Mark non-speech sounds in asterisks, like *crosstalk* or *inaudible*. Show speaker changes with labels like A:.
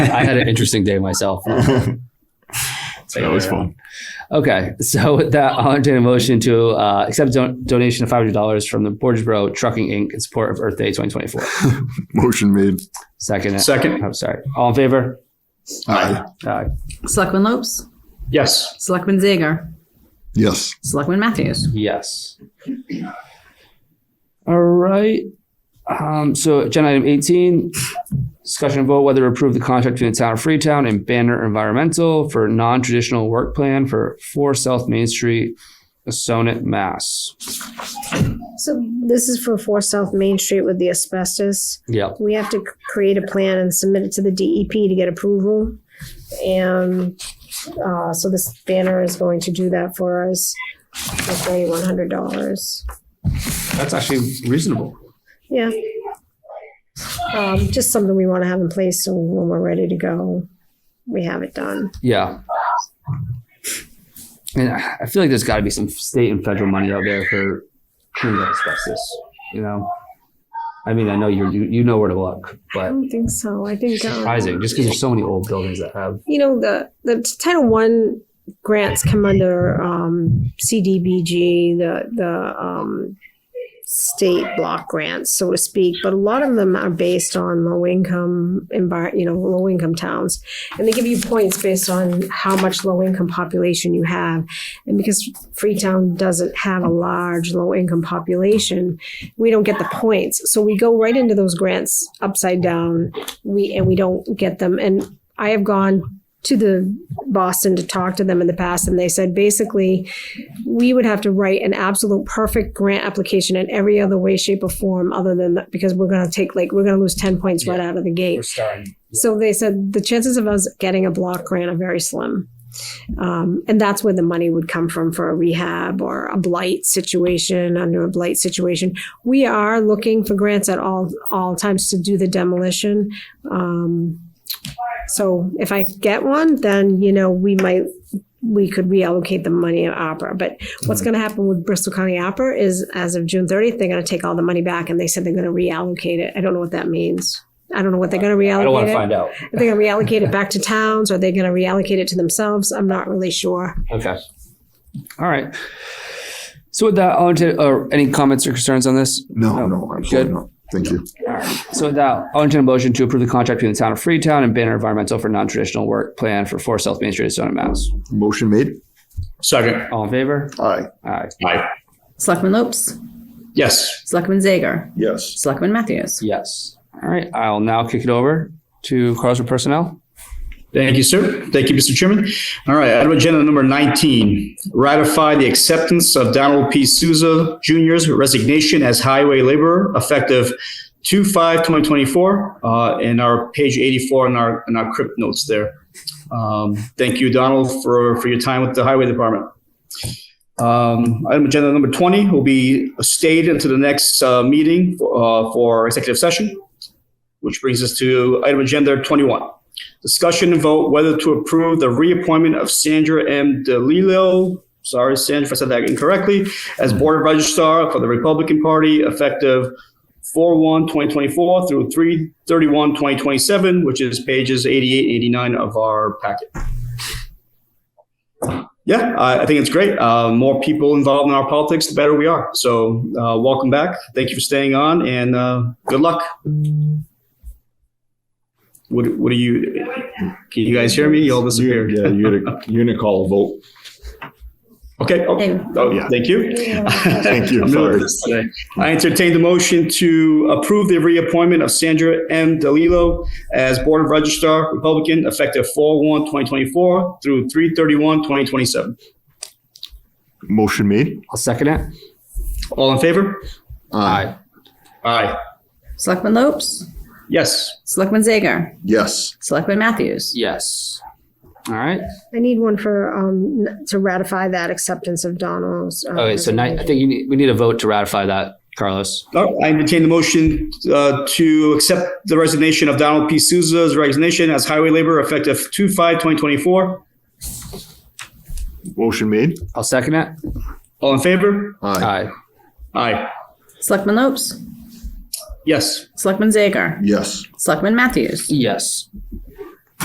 A: *laughs* I had an interesting day myself.
B: *laughs* it's always fun.
A: Okay, so with that, I'll entertain a motion to uh, accept don- donation of five hundred dollars from the Borgesboro Trucking Inc. in support of Earth Day twenty twenty four.
B: Motion made.
A: Second.
C: Second.
A: I'm sorry. All in favor?
B: Aye.
A: Aye.
D: Selectman Lopes,
C: Yes.
D: Selectman Zager,
B: Yes.
D: Selectman Matthews.
A: Yes. *clears throat* All right. Um, so agenda item eighteen, discussion and vote whether to approve the contract between the town of Freetown and Banner Environmental for non-traditional work plan for four South Main Street, Sonnet, Mass.
E: So this is for Four South Main Street with the asbestos.
A: Yep.
E: We have to c- create a plan and submit it to the DEP to get approval. And uh, so this banner is going to do that for us for thirty-one hundred dollars.
A: That's actually reasonable.
E: Yeah. Um, just something we want to have in place so when we're ready to go, we have it done.
A: Yeah. And I I feel like there's got to be some state and federal money out there for cleaning up asbestos. You know, I mean, I know you're, you you know where to look,
E: I
A: but
E: don't think so. I think. um,
A: surprising just because there's so many old buildings that have.
E: you know the the Title One grants come under um, CDBG, the the um, state block grants, so to speak. But a lot of them are based on low income envir- you know, low income towns, and they give you points based on how much low income population you have. And because Freetown doesn't have a large low income population, we don't get the points. So we go right into those grants upside down. We and we don't get them. And I have gone to the Boston to talk to them in the past, and they said basically we would have to write an absolute perfect grant application in every other way, shape, or form other than that, because we're going to take like we're going to lose ten points right out of the gate.
A: starting.
E: So they said the chances of us getting a block grant are very slim. Um, and that's where the money would come from for a rehab or a blight situation under a blight situation. We are looking for grants at all all times to do the demolition. Um, so if I get one, then you know we might we could reallocate the money at opera. But what's
A: Mm-hmm.
E: going to happen with Bristol County Opera is as of June 30th, they're going to take all the money back, and they said they're going to reallocate it. I don't know what that means. I don't know what they're going to reallocate.
A: I don't want
E: it.
A: to find out.
E: Are they going to reallocate it back to towns? Are they going to reallocate it to themselves? I'm not really sure.
A: Okay. All right. So with that, I'll entertain, or any comments or concerns on this?
B: No, no,
A: Good.
B: absolutely not. Thank you.
A: So with that, I'll entertain a motion to approve the contract between the town of Freetown and Banner Environmental for non-traditional work plan for four South Main Street, Sonnet, Mass.
B: Motion made.
C: Second.
A: All in favor?
B: Aye.
A: Aye.
C: Aye.
D: Selectman Lopes,
C: Yes.
D: Selectman Zager,
B: Yes.
D: Selectman Matthews.
A: Yes. All right. I'll now kick it over to Carlos for personnel.
C: Thank you, sir. Thank you, Mr. Chairman. All right, item agenda number 19, ratify the acceptance of Donald P. Souza Jr.'s resignation as highway laborer effective 2/5/2024, uh, in our page 84 in our, in our crypt notes there. Um, Thank you, Donald, for, for your time with the Highway Department. Um, Item agenda number 20 will be stayed until the next uh, meeting for uh, for executive session, which brings us to item agenda 21. Discussion and vote whether to approve the reappointment of Sandra M. DeLillo, sorry, Sandra, if I said that incorrectly, as Board Registrar for the Republican Party effective 4/1/2024 through 3/31/2027, which is pages 88 and 89 of our packet. Yeah, I I think it's great. Uh, More people involved in our politics, the better we are. So uh, welcome back. Thank you for staying on and uh, good luck. What What do you, can you guys hear me? You all disappeared.
B: Yeah, you had a unit call vote.
C: Okay. Oh,
D: Hey.
C: oh, yeah. Thank you.
B: *laughs* Thank you.
C: I'm
B: Sorry.
C: nervous today. I entertain the motion to approve the reappointment of Sandra M. DeLillo as Board of Registrar Republican effective 4/1/2024 through 3/31/2027.
B: Motion made.
A: I'll second it.
C: All in favor?
B: Aye.
C: Aye.
D: Selectman Lopes,
C: Yes.
D: Selectman Zager,
B: Yes.
D: Selectman Matthews.
A: Yes. All right.
E: I need one for um, n- to ratify that acceptance of Donald's. uh,
A: Okay. So ni- I think you need, we need a vote to ratify that, Carlos.
C: Oh, I entertain the motion uh, to accept the resignation of Donald P. Souza's resignation as highway laborer effective 2/5/2024.
B: Motion made.
A: I'll second it.
C: All in favor?
B: Aye.
A: Aye.
C: Aye.
D: Selectman Lopes,
C: Yes.
D: Selectman Zager,
B: Yes.
D: Selectman Matthews.
A: Yes.